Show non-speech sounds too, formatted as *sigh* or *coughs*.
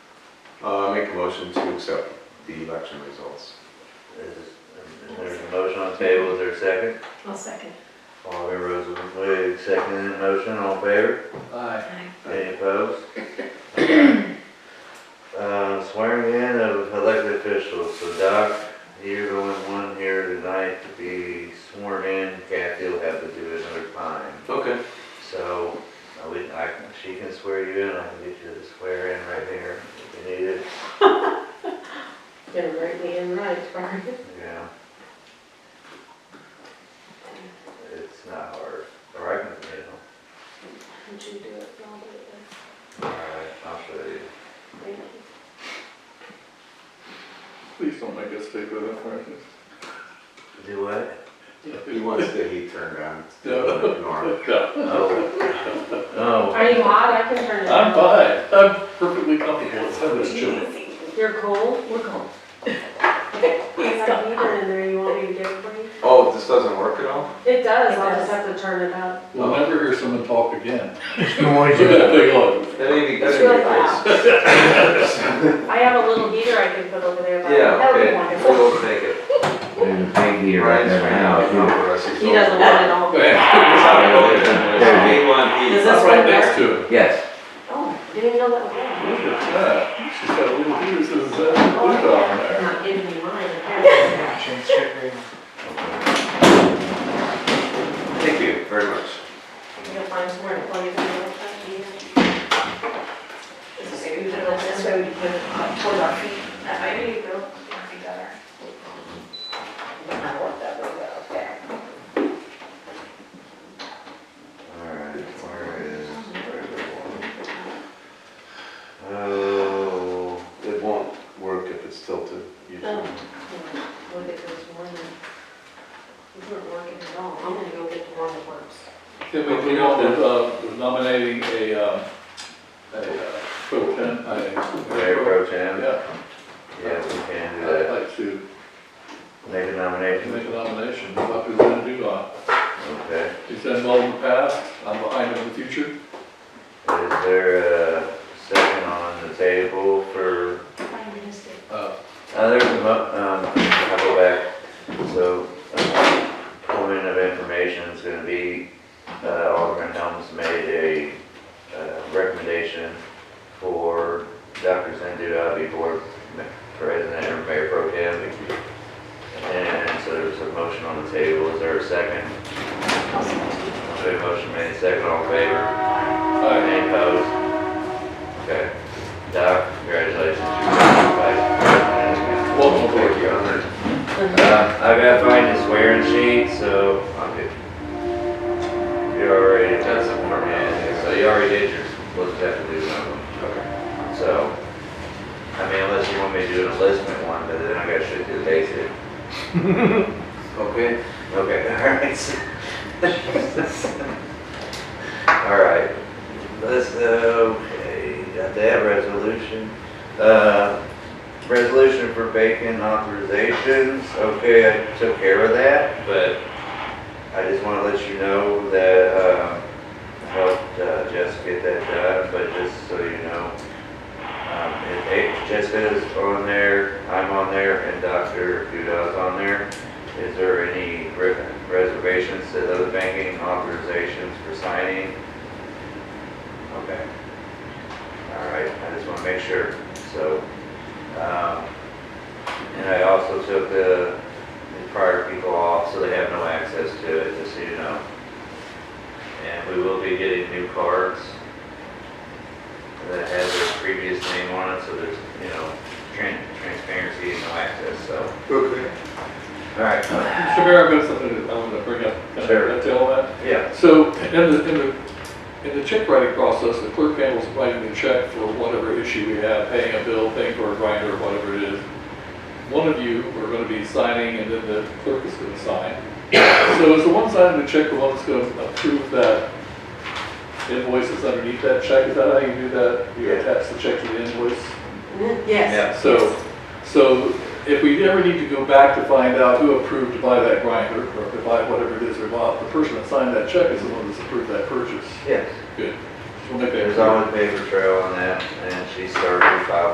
Uh, I make a motion to accept the election results. Is, is there a motion on the table, is there a second? I'll second. All in favor, Roseland Blue, second motion, all in favor? Aye. Aye. Any *coughs* opposed? Uh, swearing in of elected officials, so Doc, you're the only one here tonight to be sworn in, Kathy will have to do it another time. Okay. So, I would, I, can- she can swear you in, I can get you to swear in right here, if you need it, Gonna write me in right, Brian. *laughs* yeah. It's not hard, or I can, you know. Would you do it? No, I'll do it then. Alright, I'll show you. Thank you. Please don't make us take that information. Do what? He wants the heat turned on. It's Yeah. definitely normal. No, Oh. *laughs* No. Are you hot? I can turn it *laughs* on. I'm fine, I'm perfectly comfortable, it's having this chilly. You're cold? We're cold. I have a heater in there, you want me to get it for you? Oh, this doesn't work at all? It does, I'll just have to turn it up. We'll never hear someone talk again. Noise. *laughs* Look at that big log. That ain't It's good in your really loud. face. I have a little heater I can put over there, but Yeah, that would be okay, wonderful. we'll take it. There's a big heater right Ryan's there right now, if you now. don't press it. He doesn't want it *laughs* all. There There's a you one Does heat. this That's one right next work? to it. Yes, Oh, didn't even know that was there. Look at that, she's got a little piece of that Oh, blue dot on there. Not giving me mine, apparently. Thank you very much. You can find somewhere to plug it in like that, yeah. This is good, Uh, and this way we can put it up toward our feet. That might be, no, that'd be better. I want that really well, okay. Alright, where is, where is the one? Oh, It won't work if it's tilted. usually. Oh. Look at this one, it not working at all, I'm gonna go get the one that works. Can we do one with, uh, with nominating a, um, a, uh, pro tem, Mayor a, Pro Tem? yeah, Yeah, we can do I'd that. like to Make a make a nomination. nomination, what we're gonna do, uh, Okay. he's done well in the past, I'm behind him in the future. Is there a second on the table for, Uh, uh, there's a, mo- um, I'll go back. So, um, point of information is gonna be, uh, Alderman Helms made a, uh, recommendation for Dr. Zendu Abi for ma- president or mayor pro tem. And so there's a motion on the table, is there a second? Okay, motion made, second, all in favor? I, Any opposed? Okay. Doc, congratulations, you're the vice president. Welcome aboard. Thank you, honored. Uh, I've got to find a swearing sheet, so I'm good. You already done some more, man, so you already did yours, we'll just have to do another one. So, I mean, unless you want me to do an enlistment one, but then I gotta shoot through the basic. Okay. Okay, *laughs* alright. Alright, let's, uh, okay, got that resolution. Uh, resolution for bacon authorizations, okay, I took care of that, but I just wanna let you know that, uh, helped uh, Jess get that done, but just so you know, um, it, it, Jessica's on there, I'm on there, and Dr. Duda's on there. Is there any re- reservations to those banking authorizations for signing? Okay. All right, I just want to make sure, so, um, and I also took the, the prior people off, so they have no access to it, just so you know. And we will be getting new cards that has their previous name on it, so there's, you know, tran- transparency and no access, so. Okay. All right. Mr. Mayor, I've got something that I want to bring up. Can I- Sure. Can I tell that? Yeah, So in the, in the, in the check writing process, the clerk handles writing the check for whatever issue we have, paying a bill, paying for a grinder, whatever it is. One of you are gonna be signing and then the clerk is gonna sign. So is the one signing the check the one that's gonna approve that invoice that's underneath that check? Is that how you do that? You Yeah. attach the check to the invoice? Yes. yeah, So, so if we ever need to go back to find out who approved to buy that grinder, or to buy whatever it is we bought, the person that signed that check is the one that's approved that purchase. yes. Good. Just wanna make that There's clear. always paper trail on that, and she started to file